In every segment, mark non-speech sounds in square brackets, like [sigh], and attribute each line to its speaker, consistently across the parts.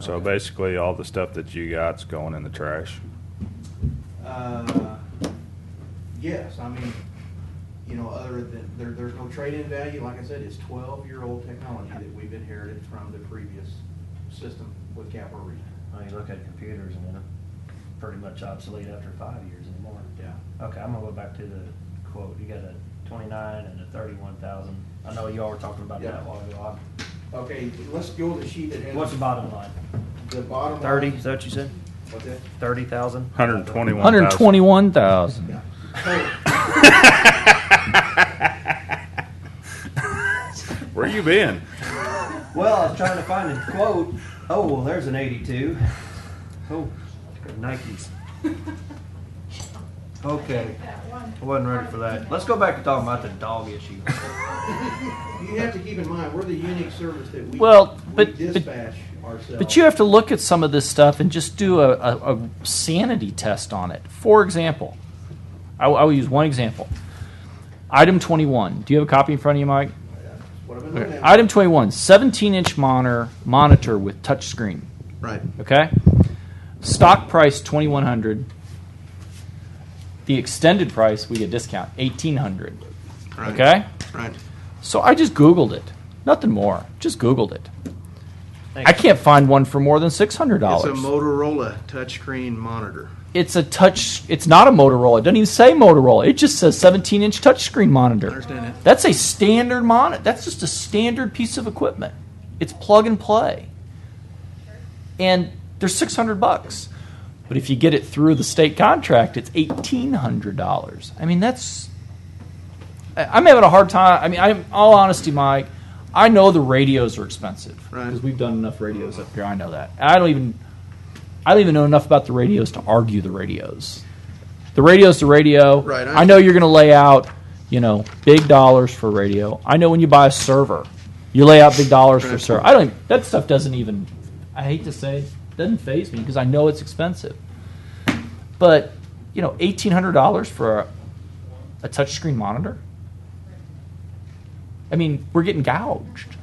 Speaker 1: So basically, all the stuff that you got's going in the trash.
Speaker 2: Uh, Yes, I mean, you know, other than, there, there's no trade-in value, like I said, it's twelve-year-old technology that we've inherited from the previous system with Capital Region.
Speaker 3: Well, you look at computers and they're pretty much obsolete after five years anymore.
Speaker 2: Yeah.
Speaker 3: Okay, I'm gonna go back to the quote. You got a twenty-nine and a thirty-one thousand. I know y'all were talking about
Speaker 2: Yeah.
Speaker 3: that a while ago.
Speaker 2: Okay, let's go to the sheet that
Speaker 3: I-
Speaker 2: has.
Speaker 3: What's the bottom line?
Speaker 2: The bottom.
Speaker 3: Thirty,
Speaker 2: line.
Speaker 3: is that what you said?
Speaker 2: What's that?
Speaker 3: Thirty thousand?
Speaker 1: 121.
Speaker 4: Hundred and twenty-one thousand.
Speaker 1: Where you been?
Speaker 3: Well, I was trying to find a quote. Oh, well, there's an eighty-two. Oh, Nikes. Okay, I wasn't ready for that. Let's go back to talking about the dog issue.
Speaker 2: You have to keep in mind, we're the unique service that we.
Speaker 4: Well,
Speaker 2: we
Speaker 4: but- but-
Speaker 2: Dispatch ourselves.
Speaker 4: But you have to look at some of this stuff and just do a, a, a sanity test on it. For example, I, will- I will use one example. Item 21. Do you have a copy in front of you, Mike?
Speaker 2: What I've been looking at.
Speaker 4: Item 21, 17 inch monitor, monitor with touch screen.
Speaker 2: Right.
Speaker 4: Okay? Stock price 2100 The extended price, we get discount, 1800 Okay?
Speaker 2: Right.
Speaker 4: So I just Googled it. Nothing more. Just Googled it.
Speaker 3: Thanks.
Speaker 4: I can't find one for more than $600.
Speaker 2: It's a Motorola touchscreen monitor.
Speaker 4: it's a touch it's not a motorola it doesn't even say motorola it just says 17 inch touchscreen monitor
Speaker 2: understand that.
Speaker 4: that's a standard monitor that's just a standard piece of equipment it's plug and play and they're 600 bucks but if you get it through the state contract it's $1800 i mean that's I- i'm having a hard time i mean i'm all honesty mike i know the radios are expensive
Speaker 2: Right.
Speaker 4: because we've done enough radios up here i know that i don't even I don't even know enough about the radios to argue the radios. The radio's the radio.
Speaker 2: Right, I-
Speaker 4: I, know you're going to lay out, you know, big dollars for radio. I know when you buy a server, you lay out big dollars for
Speaker 2: Right.
Speaker 4: server. I don't. Even, that stuff doesn't even. I hate to say, it, doesn't phase me because I know it's expensive. But you know, eighteen hundred dollars for a, a touchscreen monitor. I mean, we're getting gouged.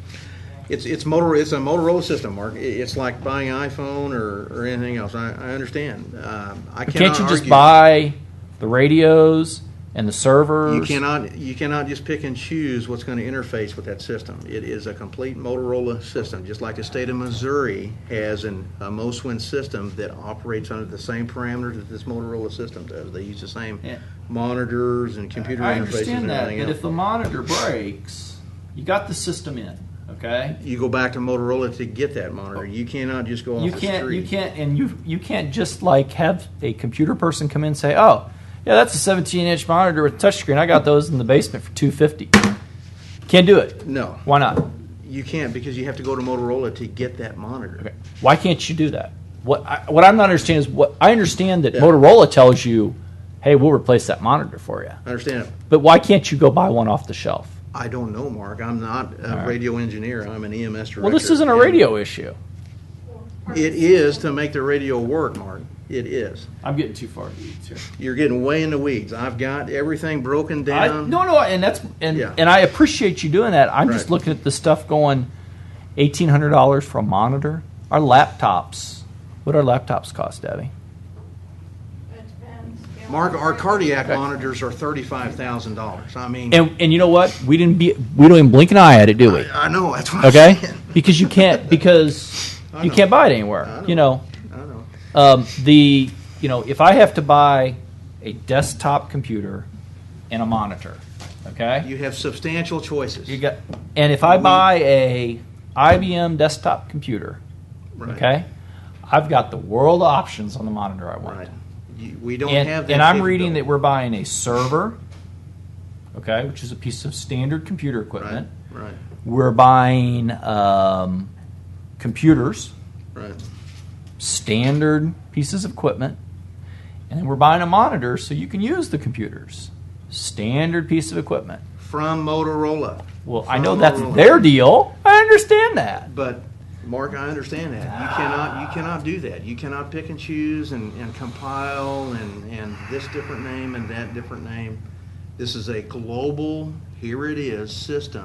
Speaker 2: It's it's Motorola. It's a Motorola system, Mark. I- It's like buying an iPhone or, or anything else. I, I understand. Um, I
Speaker 4: But
Speaker 2: cannot
Speaker 4: can't you just
Speaker 2: argue-
Speaker 4: buy the radios and the servers?
Speaker 2: You cannot you cannot just pick and choose what's going to interface with that system. It is a complete Motorola system, just like the state of Missouri has an a Moswin system that operates under the same parameters that this Motorola system does. They use the same
Speaker 4: Yeah.
Speaker 2: monitors and computer
Speaker 4: I
Speaker 2: interfaces and
Speaker 4: understand that,
Speaker 2: everything
Speaker 4: but
Speaker 2: else.
Speaker 4: if the monitor breaks, you got the system in, okay?
Speaker 2: you go back to Motorola to get that monitor. You cannot just go off
Speaker 4: You
Speaker 2: the
Speaker 4: can't,
Speaker 2: street.
Speaker 4: you can't, and you you can't just like have a computer person come in and say, "Oh, yeah, that's a 17-inch monitor with touchscreen. I got those in the basement for 250." Can't do it.
Speaker 2: No,
Speaker 4: Why not?
Speaker 2: you can't because you have to go to Motorola to get that monitor.
Speaker 4: Okay. Why can't you do that? What I, what I'm not understanding is what I understand that
Speaker 2: Yeah.
Speaker 4: Motorola tells you, "Hey, we'll replace that monitor for you,"
Speaker 2: I understand. it.
Speaker 4: but why can't you go buy one off the shelf?
Speaker 2: I don't know, Mark. I'm not a
Speaker 4: All right.
Speaker 2: radio engineer. I'm an EMS director.
Speaker 4: Well, this isn't a
Speaker 2: And-
Speaker 4: radio issue.
Speaker 2: It is to make the radio work, Mark. It is.
Speaker 4: I'm getting too far. Too.
Speaker 2: You're getting way in the weeds. I've got everything broken
Speaker 4: I,
Speaker 2: down.
Speaker 4: no, no, and that's and
Speaker 2: Yeah.
Speaker 4: and I appreciate you doing that. I'm just
Speaker 2: Right.
Speaker 4: looking at the stuff going, eighteen hundred dollars for a monitor. Our laptops, what our laptops cost, Debbie?
Speaker 2: Mark, our cardiac monitors are thirty-five thousand dollars. I mean,
Speaker 4: And and you know what? We didn't be we don't even blink an eye at it, do we?
Speaker 2: I know that's what [laughs]
Speaker 4: Okay,
Speaker 2: I'm saying.
Speaker 4: because you can't because
Speaker 2: I
Speaker 4: you
Speaker 2: know.
Speaker 4: can't buy it anywhere. You know,
Speaker 2: I know.
Speaker 4: um, the you know if I have to buy a desktop computer and a monitor, okay,
Speaker 2: You have substantial choices.
Speaker 4: you got and if I buy a IBM desktop computer.
Speaker 2: right.
Speaker 4: Okay, I've got the world of options on the monitor I want,
Speaker 2: Right. You, we don't
Speaker 4: and,
Speaker 2: have. That
Speaker 4: and I'm reading that
Speaker 2: capability.
Speaker 4: we're buying a server, okay, which is a piece of standard computer equipment.
Speaker 2: Right.
Speaker 4: We're buying um, computers,
Speaker 2: Right. Right.
Speaker 4: standard pieces of equipment, and then we're buying a monitor so you can use the computers, standard piece of equipment.
Speaker 2: From Motorola.
Speaker 4: Well, I know
Speaker 2: From
Speaker 4: that's
Speaker 2: Motorola.
Speaker 4: their deal. I understand that.
Speaker 2: But, Mark, I understand that. You cannot, you cannot do that. You cannot pick and choose and, and compile and, and this different name and that different name. This is a global, here it is, system.